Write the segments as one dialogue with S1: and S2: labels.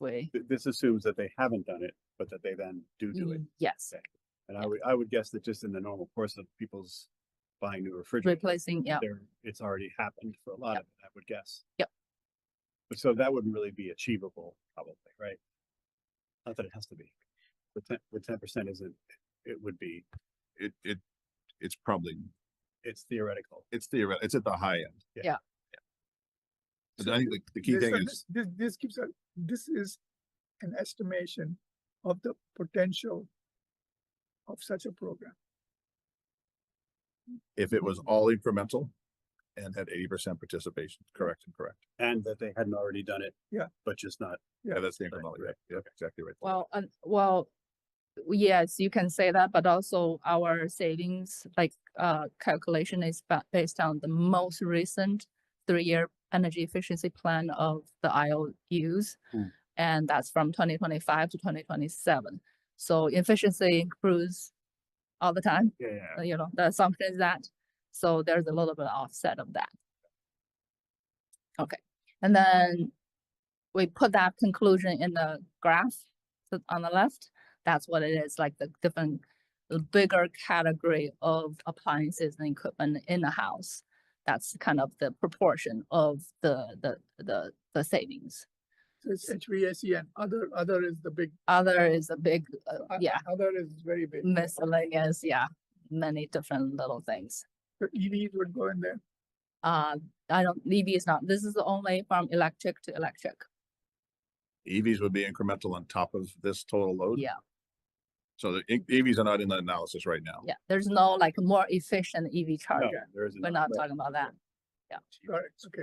S1: way.
S2: Th- This assumes that they haven't done it, but that they then do do
S1: Mm-hmm.
S2: it.
S1: Mm, Yes,
S2: And I would, I would guess that just in the normal course of people's buying new refrigerators,
S1: replacing, yeah,
S2: there, it's already happened for a lot of it, I would guess.
S1: Yep.
S2: But So that would really be achievable, probably, right? Not that it has to be. The ten, the ten percent isn't, it would be,
S3: it, it, it's probably,
S2: it's theoretical.
S3: it's theoretical, it's at the high end.
S2: Yeah.
S1: Yeah.
S3: But I think the, the key
S4: This-
S3: thing
S4: uh,
S3: is,
S4: this- This, this gives a, this is an estimation of the potential of such a program.
S3: if it was all incremental and had eighty percent participation, correct and correct.
S2: And that they hadn't already done it.
S4: Yeah.
S2: But just not,
S3: Yeah, that's the
S2: Right,
S3: incremental, yeah,
S2: right,
S3: yeah, exactly right.
S1: well, and, well, yes, you can say that, but also our savings, like, uh, calculation is ba- based on the most recent three-year energy efficiency plan of the IOUs.
S2: Hmm.
S1: And that's from twenty twenty-five to twenty twenty-seven. So efficiency improves all the time.
S2: yeah,
S1: uh, you know, the assumption is that. So there's a little bit of offset of that. Okay, and then we put that conclusion in the graph to- on the left. That's what it is, like the different, the bigger category of appliances and equipment in the house. That's kind of the proportion of the, the, the, the savings.
S4: So it's HVAC and other, other is the big,
S1: Other is a big, uh,
S4: o-
S1: yeah,
S4: other is very big.
S1: miscellaneous, yeah, many different little things.
S4: So EVs would go in there.
S1: Uh, I don't, EV is not, this is only from electric to electric.
S3: EVs E would be incremental on top of this total load.
S1: Yeah.
S3: So the in- EVs are not in the analysis right now.
S1: Yeah, there's no like more efficient EV
S2: No,
S1: charger.
S2: there isn't.
S1: We're not talking about that.
S4: Got it, okay.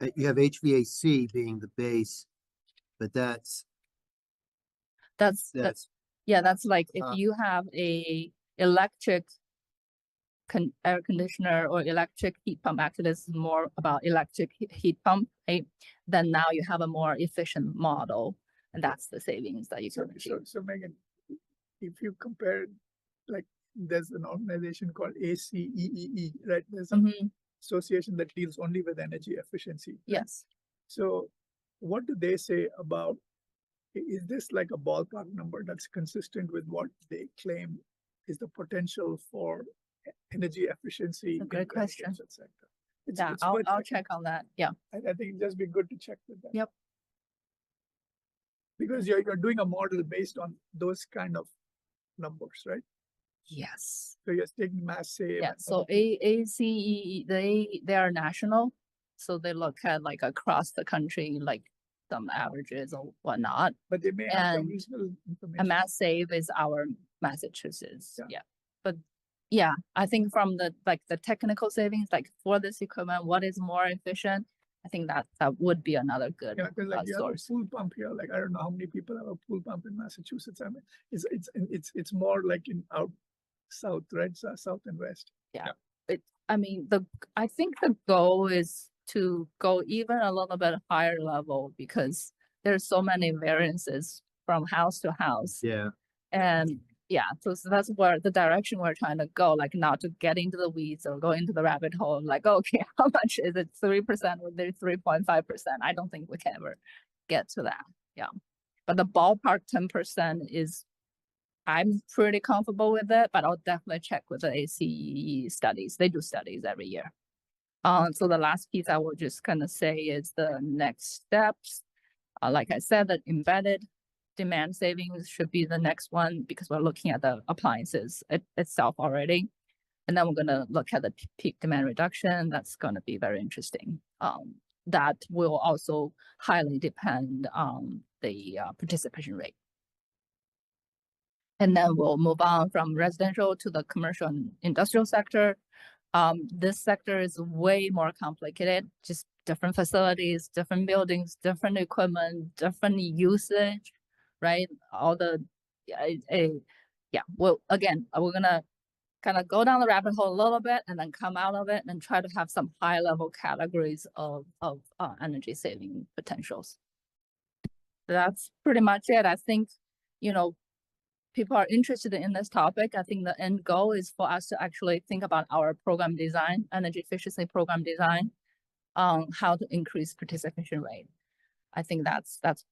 S5: Uh, You have HVAC being the base, but that's,
S1: That's, that's,
S5: that's,
S1: yeah, that's like if
S5: uh,
S1: you have a electric con- air conditioner or electric heat pump, actually this is more about electric he- heat pump, right? Then now you have a more efficient model and that's the savings that you
S4: So,
S1: can achieve.
S4: so, so Megan, if you compare, it, like, there's an organization called ACEEE, E right? There's an
S1: Mhm,
S4: association that deals only with energy efficiency.
S1: yes,
S4: So what do they say about, i- is this like a ballpark number that's consistent with what they claim is the potential for e- energy efficiency?
S1: a
S4: in
S1: great
S4: the
S1: question.
S4: education sector? It's-
S1: yeah,
S4: it's
S1: I'll,
S4: worth
S1: I'll
S4: checking.
S1: check on that, yeah.
S4: I, I think it'd just be good to check with them.
S1: Yep.
S4: Because you're, you're doing a model based on those kind of numbers, right?
S1: Yes.
S4: So you're taking mass save.
S1: Yeah,
S4: and
S1: so
S4: other-
S1: A, ACE, they, they are national, so they look at like across the country, like some averages or whatnot.
S4: But they may have some
S1: and
S4: reasonable information.
S1: And Mass Save is our Massachusetts,
S4: Yeah.
S1: yeah. But yeah, I think from the, like the technical savings, like for this equipment, what is more efficient? I think that, that would be another good,
S4: Yeah, because
S1: uh,
S4: like you have a
S1: source.
S4: pool pump here, like I don't know how many people have a pool pump in Massachusetts. I mean, it's it's it's it's more like in out south, right? So south and west.
S1: I mean, the, I think the goal is to go even a little bit higher level because there's so many variances from house to house.
S5: yeah,
S1: And yeah, so, so that's where the direction we're trying to go, like not to get into the weeds or go into the rabbit hole, like, okay, how much is it? Three percent or the three point five percent? I don't think we can ever get to that. Yeah. But the ballpark ten percent is I'm pretty comfortable with it, but I'll definitely check with the ACE E studies. They do studies every year. Um, so the last piece I will just kind of say is the next steps. Uh, like I said, that embedded demand savings should be the next one because we're looking at the appliances it, itself already. And then we're gonna look at the p- peak demand reduction. That's gonna be very interesting. Um, that will also highly depend on the uh, participation rate. And then we'll move on from residential to the commercial and industrial sector. Um, this sector is way more complicated, just different facilities, different buildings, different equipment, different usage right? All the, yeah, it- it- yeah, well, again, uh, we're gonna kind of go down the rabbit hole a little bit and then come out of it and try to have some high level categories of, of, uh, energy saving potentials. That's pretty much it. I think, you know, people are interested in this topic. I think the end goal is for us to actually think about our program design, energy efficiency program design, um, how to increase participation rate. I think that's, that's